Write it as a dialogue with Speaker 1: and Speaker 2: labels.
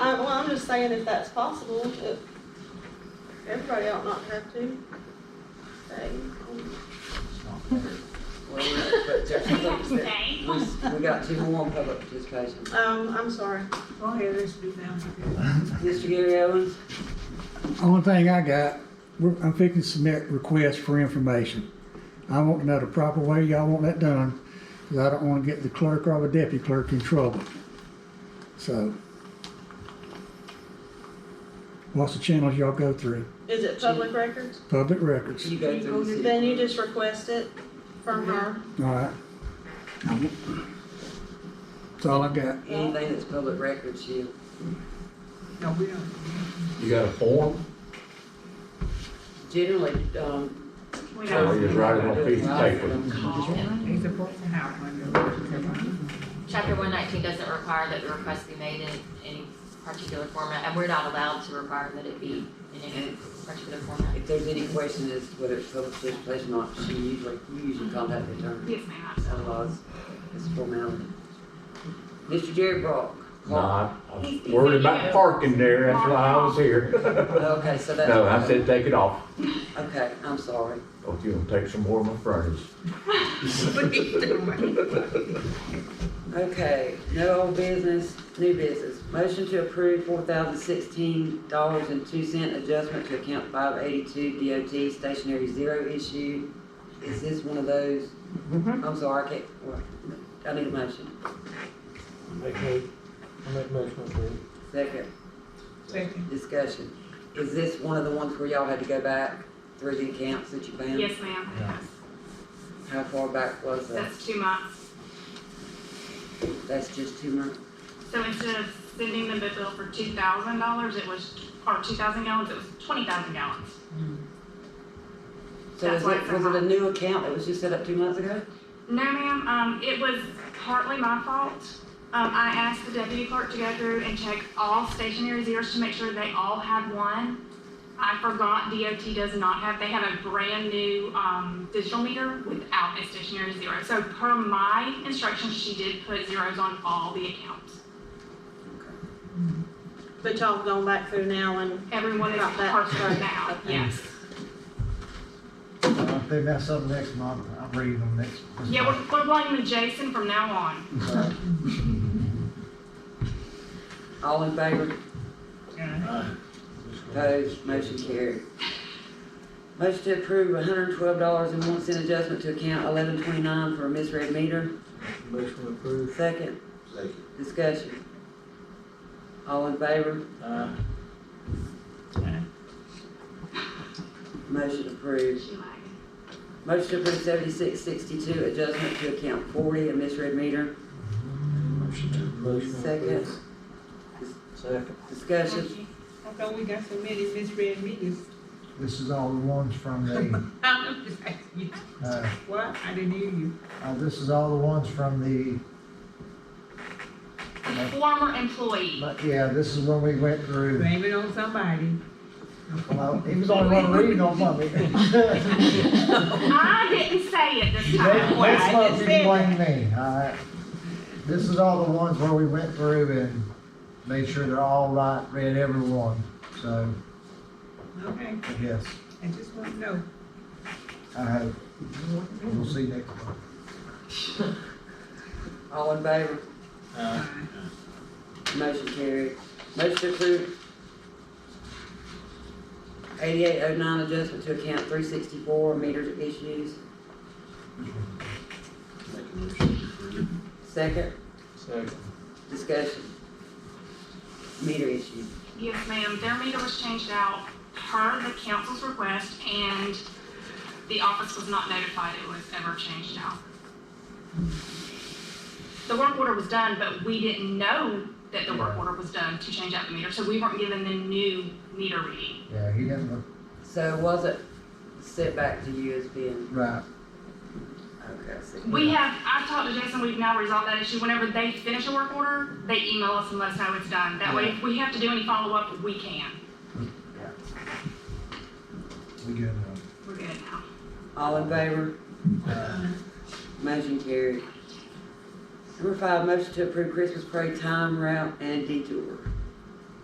Speaker 1: Um, just saying if that's possible, if everybody ought not have to. Hey,
Speaker 2: Well, we- but there's public-
Speaker 3: Stay.
Speaker 2: we, we got two more on public participation.
Speaker 1: Um, I'm sorry.
Speaker 4: Oh, yeah, this would be down here.
Speaker 2: Mr. Gary Owens,
Speaker 5: Only thing I got, we're- I'm fixing to submit requests for information. I want to know the proper way y'all want that done, because I don't want to get the clerk or the deputy clerk in trouble. So. What's the channels y'all go through?
Speaker 1: Is it public records?
Speaker 5: Public records,
Speaker 2: you go through the
Speaker 1: Then you
Speaker 2: city.
Speaker 1: just request it from her.
Speaker 5: all right? That's all I got.
Speaker 2: Anything that's public records, you,
Speaker 4: No, we don't.
Speaker 6: You got a form?
Speaker 2: generally, um.
Speaker 6: Or
Speaker 3: We
Speaker 6: you
Speaker 3: don't.
Speaker 6: just write it on a piece of paper?
Speaker 4: He's a person now. I know.
Speaker 7: Chapter one nineteen doesn't require that the request be made in any particular format, and we're not allowed to require that it be in any particular format.
Speaker 2: If there's any question as to whether it's public participation or not, she usually, you usually contact the attorney,
Speaker 3: Yes, ma'am.
Speaker 2: otherwise it's formality. Mr. Jerry Brock.
Speaker 6: No, I I was worried about parking there, that's why I was here.
Speaker 2: Okay, so that's.
Speaker 6: No, I said take it off.
Speaker 2: Okay, I'm sorry.
Speaker 6: Oh, you gonna take some more of my furnace.
Speaker 2: Okay, no old business, new business. Motion to approve four thousand sixteen dollars and two cent adjustment to account five eighty-two DOT stationary zero issue. Is this one of those?
Speaker 3: Mm-hmm.
Speaker 2: I'm sorry, I can't, well, I need a motion.
Speaker 8: Make mo- I make motion to approve.
Speaker 2: Second,
Speaker 4: Second.
Speaker 2: discussion. Is this one of the ones where y'all had to go back through the accounts that you found?
Speaker 3: Yes, ma'am.
Speaker 8: Yeah.
Speaker 2: How far back was that?
Speaker 3: That's two months.
Speaker 2: That's just two months?
Speaker 3: So instead of sending them a bill for two thousand dollars, it was, or two thousand gallons, it was twenty thousand gallons.
Speaker 2: So
Speaker 3: That's
Speaker 2: is
Speaker 3: why
Speaker 2: it,
Speaker 3: it's
Speaker 2: was
Speaker 3: so
Speaker 2: it a
Speaker 3: high.
Speaker 2: new account that was just set up two months ago?
Speaker 3: No, ma'am, um, it was partly my fault. Um, I asked the deputy clerk to go through and check all stationary zeros to make sure they all had one. I forgot DOT does not have, they have a brand new, um, digital meter without a stationary zero. So per my instructions, she did put zeros on all the accounts.
Speaker 1: But y'all gone back through now and
Speaker 3: Everyone is
Speaker 1: Got that.
Speaker 3: parsed right now, yes.
Speaker 9: If they mess up next month, I'm reading them next. this
Speaker 3: Yeah,
Speaker 9: month.
Speaker 3: we're, we're blaming Jason from now on.
Speaker 2: All in favor?
Speaker 4: Yeah.
Speaker 2: Opposed, motion carried. Motion to approve hundred and twelve dollars and one cent adjustment to account eleven twenty-nine for a misread meter.
Speaker 8: Motion to approve.
Speaker 2: Second,
Speaker 8: Second.
Speaker 2: discussion. All in favor?
Speaker 8: Aye.
Speaker 2: Motion approved.
Speaker 3: She lagged.
Speaker 2: Motion to approve seventy-six sixty-two adjustment to account forty, a misread meter.
Speaker 8: Motion to approve.
Speaker 2: Second,
Speaker 8: Second.
Speaker 2: discussion.
Speaker 3: Thank you.
Speaker 4: How come we got so many misread meetings?
Speaker 9: This is all the ones from the,
Speaker 4: I'm just asking you.
Speaker 9: uh,
Speaker 4: What? I didn't hear you.
Speaker 9: uh, this is all the ones from the,
Speaker 3: The former employee.
Speaker 9: but yeah, this is when we went through.
Speaker 4: Blame it on somebody.
Speaker 9: Well, he was only one reading on Monday.
Speaker 3: I didn't say it this
Speaker 9: Next
Speaker 3: time.
Speaker 4: Well, I
Speaker 9: next month,
Speaker 4: just
Speaker 9: you
Speaker 4: said
Speaker 9: can blame me, all right? This is all the ones where we went through and made sure they're all right, read every one, so,
Speaker 4: Okay,
Speaker 9: but yes,
Speaker 4: I just want to know.
Speaker 9: I hope. We'll see next month.
Speaker 2: All in favor?
Speaker 8: Aye.
Speaker 2: Motion carried. Motion approved. Eighty-eight oh nine adjustment to account three sixty-four meter issues.
Speaker 8: Make a motion to approve.
Speaker 2: Second,
Speaker 8: Second.
Speaker 2: discussion. Meter issue.
Speaker 3: Yes, ma'am, their meter was changed out per the council's request and the office was not notified it was ever changed out. The work order was done, but we didn't know that the work order was done to change out the meter, so we weren't given the new meter reading.
Speaker 9: Yeah, he didn't look
Speaker 2: So was it sent back to you as being,
Speaker 9: right.
Speaker 2: okay, I see.
Speaker 3: We have, I've talked to Jason, we've now resolved that issue. Whenever they finish a work order, they email us and let us know it's done. That way, if we have to do any follow-up, we can.
Speaker 9: We good now.
Speaker 3: We're good now.
Speaker 2: All in favor? Motion carried. Number five, motion to approve Christmas parade time, route, and detour.